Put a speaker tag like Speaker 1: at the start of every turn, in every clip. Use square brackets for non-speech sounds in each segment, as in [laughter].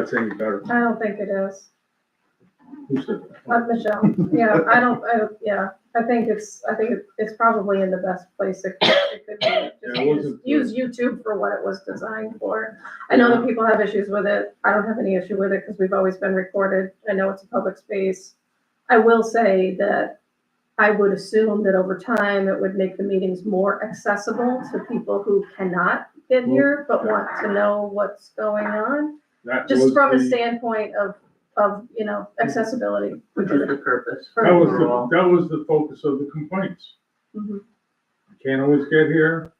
Speaker 1: That's any better.
Speaker 2: I don't think it is.
Speaker 1: Who said that?
Speaker 2: Uh, Michelle, yeah, I don't, I don't, yeah, I think it's, I think it- it's probably in the best place it it could be.
Speaker 1: Yeah, it wasn't-
Speaker 2: Just Use use YouTube for what it was designed for. I know that people have issues with it. I don't have any issue with it because we've always been recorded. I know it's a public space. I will say that I would assume that over time, it would make the meetings more accessible to people who cannot get here but want to know what's going on.
Speaker 1: That
Speaker 2: just
Speaker 1: was
Speaker 2: from a
Speaker 1: the-
Speaker 2: standpoint of, of, you know, accessibility.
Speaker 3: Which is the purpose.
Speaker 1: That was,
Speaker 3: Overall.
Speaker 1: the that was the focus of the complaints.
Speaker 2: Mhm.
Speaker 1: Can't always get here,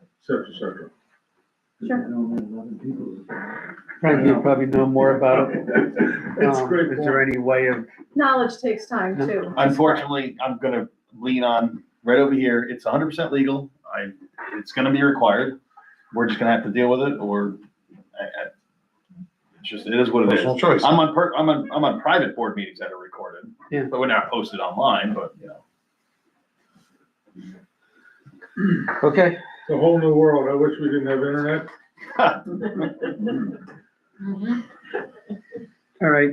Speaker 1: et cetera, et cetera. [laughs]
Speaker 4: Frank, you probably know more about it.
Speaker 1: Um, It's a
Speaker 4: Um,
Speaker 1: great
Speaker 4: Is there
Speaker 1: point.
Speaker 4: any way of,
Speaker 2: Knowledge takes time too.
Speaker 5: Unfortunately, I'm gonna lean on right over here. It's hundred percent legal. I, it's gonna be required. We're just gonna have to deal with it or I, I, it's just, it is what it is.
Speaker 6: Personal choice.
Speaker 5: I'm on per, I'm on, I'm on private board meetings that are recorded.
Speaker 4: Yeah.
Speaker 5: But we're not posted online, but you know.
Speaker 4: okay,
Speaker 1: It's a whole new world. I wish we didn't have internet.
Speaker 7: Mm-hmm.
Speaker 4: all right,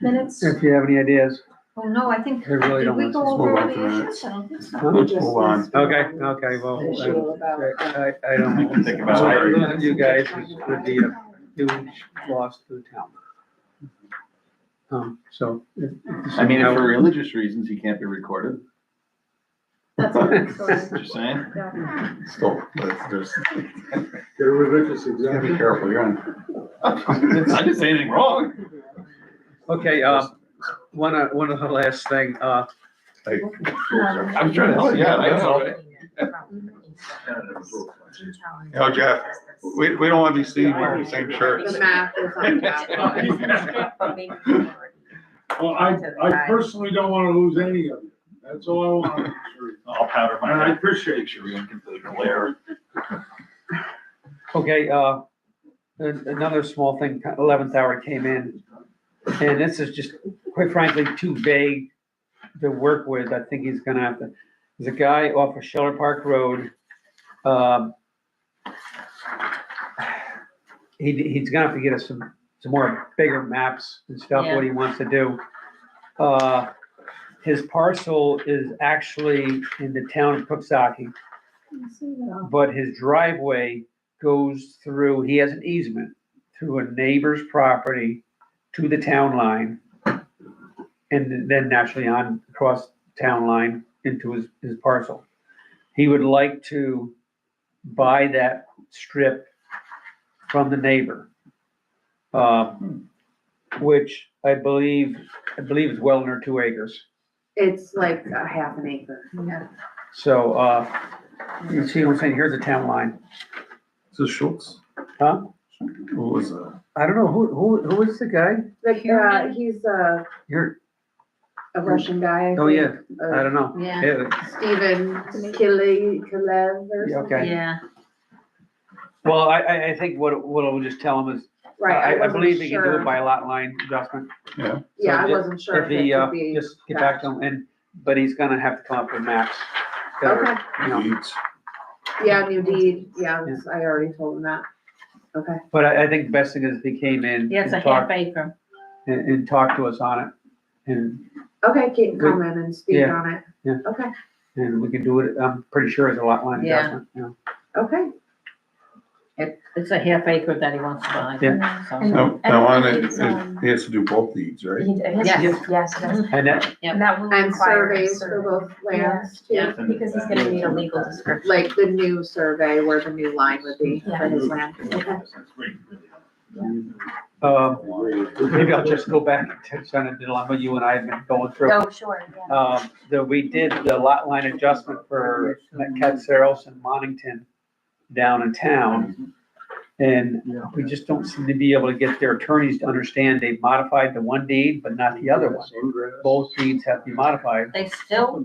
Speaker 7: Minutes?
Speaker 4: if you have any ideas,
Speaker 7: Oh, no, I think,
Speaker 4: I Mm-hmm. really
Speaker 7: did
Speaker 4: don't
Speaker 7: we
Speaker 4: want
Speaker 7: go
Speaker 4: to.
Speaker 7: over
Speaker 6: move on
Speaker 7: all
Speaker 6: to
Speaker 7: the
Speaker 6: the
Speaker 7: issues? I don't think so.
Speaker 6: Move on.
Speaker 4: Okay, okay, well, I, I- I
Speaker 5: You
Speaker 4: don't.
Speaker 5: can think about it.
Speaker 4: None of You guys would be a huge loss to the town. Um, so. if- if this is
Speaker 5: I mean, if
Speaker 4: how-
Speaker 5: for religious reasons, he can't be recorded.
Speaker 2: That's a good story.
Speaker 5: Just saying. [laughs]
Speaker 2: Yeah.
Speaker 6: Still, but there's,
Speaker 1: [laughs] Get a religious
Speaker 6: you gotta be
Speaker 1: exemption.
Speaker 6: careful, you're on.
Speaker 5: I didn't say anything wrong.
Speaker 4: Okay, uh, one, uh, one of the last thing, uh,
Speaker 5: I was trying to help you out. I know. Oh,
Speaker 6: Yo, Jeff, We, we don't want to be seen wearing the same shirts.
Speaker 8: The math is on top.
Speaker 1: Well, I, I personally don't wanna lose any of you. That's all I want.
Speaker 5: I'll powder
Speaker 1: And I
Speaker 5: my.
Speaker 1: appreciate you.
Speaker 5: Sure, we don't get the glare.
Speaker 1: [laughs]
Speaker 4: Okay, uh, an- another small thing, eleventh hour came in, and this is just, quite frankly, too vague to work with, I think he's gonna have to, there's a guy off of Sheller Park Road, um, he, he's gonna have to get us some, some more bigger maps and stuff, what he wants to do. Uh, his parcel is actually in the town of Cooksaki, but his driveway goes through, he has an easement through a neighbor's property to the town line. And then naturally on across town line into his, his parcel. He would like to buy that strip from the neighbor. um, Which I believe, I believe is well under two acres.
Speaker 8: It's like a half an acre.
Speaker 4: So, uh, you see what I'm saying? Here's the town line.
Speaker 6: Is this Schultz?
Speaker 4: Huh?
Speaker 6: Who was that?
Speaker 4: I don't know, who, who, who is the guy?
Speaker 8: Like, uh, he's a,
Speaker 4: You're,
Speaker 8: a Russian guy. I
Speaker 4: oh
Speaker 8: think.
Speaker 4: yeah, I
Speaker 8: Uh,
Speaker 4: don't know.
Speaker 7: [laughs] Yeah,
Speaker 4: Yeah,
Speaker 8: Stephen Kile, Kilev or
Speaker 4: Yeah,
Speaker 8: something.
Speaker 4: okay.
Speaker 7: yeah.
Speaker 4: Well, I, I, I think what, what I'll just tell him is,
Speaker 8: Right,
Speaker 4: Uh, I, I
Speaker 8: I wasn't
Speaker 4: believe he can do
Speaker 8: sure.
Speaker 4: it by lot line adjustment.
Speaker 8: Yeah, I
Speaker 4: so
Speaker 8: wasn't sure
Speaker 4: If
Speaker 8: if it
Speaker 4: he, uh,
Speaker 8: could be.
Speaker 4: just get back to him and, but he's gonna have to come up with maps. that are,
Speaker 8: Okay,
Speaker 4: you know,
Speaker 6: Eats.
Speaker 8: yeah, new deed, yeah,
Speaker 4: Yeah.
Speaker 8: I already told him that. Okay,
Speaker 4: But I, I think best thing is if he came in
Speaker 7: Yeah, it's a
Speaker 4: and
Speaker 7: half
Speaker 4: talked,
Speaker 7: acre.
Speaker 4: and, and talked to us on it. And,
Speaker 8: okay, Kate,
Speaker 4: Good.
Speaker 8: come in and speak
Speaker 4: Yeah.
Speaker 8: on it.
Speaker 4: Yeah.
Speaker 8: Okay,
Speaker 4: and we can do it, I'm pretty sure it's a lot line
Speaker 7: Yeah.
Speaker 4: adjustment, you know.
Speaker 8: okay,
Speaker 7: It, it's a half acre that he wants to buy. So-
Speaker 4: Oh.
Speaker 6: No, no, and um, it- it- he has to do both deeds, right?
Speaker 7: Yes. Mm-hmm.
Speaker 9: Yes, yes,
Speaker 4: And that,
Speaker 9: and that will
Speaker 8: and
Speaker 9: require. a
Speaker 8: surveys for
Speaker 9: survey.
Speaker 8: both lands
Speaker 9: Yeah,
Speaker 8: too,
Speaker 9: because he's gonna need a legal description.
Speaker 8: like the new survey where the new line would be for his land. Okay.
Speaker 4: um, maybe I'll just go back [laughs] to kind of the dilemma you and I have been going through.
Speaker 9: Oh, sure, yeah.
Speaker 4: um, that we did the lot line adjustment for Catsaros and Monington down in town. And we just don't seem to be able to get their attorneys to understand they've modified the one deed, but not the other one. Both deeds have been modified.
Speaker 7: They still,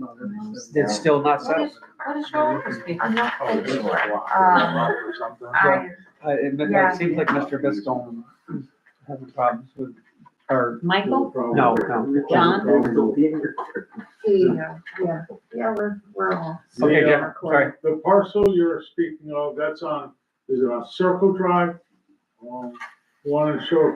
Speaker 4: It's still not
Speaker 7: what
Speaker 4: settled.
Speaker 7: is, what is Oh, wrong with these people?
Speaker 9: I'm not quite sure. Um,
Speaker 6: Well,
Speaker 9: I,
Speaker 4: Uh, It it seems like Mr. Biscombe is having problems with, or,
Speaker 7: Michael?
Speaker 4: no, no.
Speaker 8: He, uh, yeah, yeah, we're, we're all.
Speaker 4: Okay, Jeff, sorry.
Speaker 1: The parcel you're speaking of, that's on, is it on Circle Drive? Um, One in Shore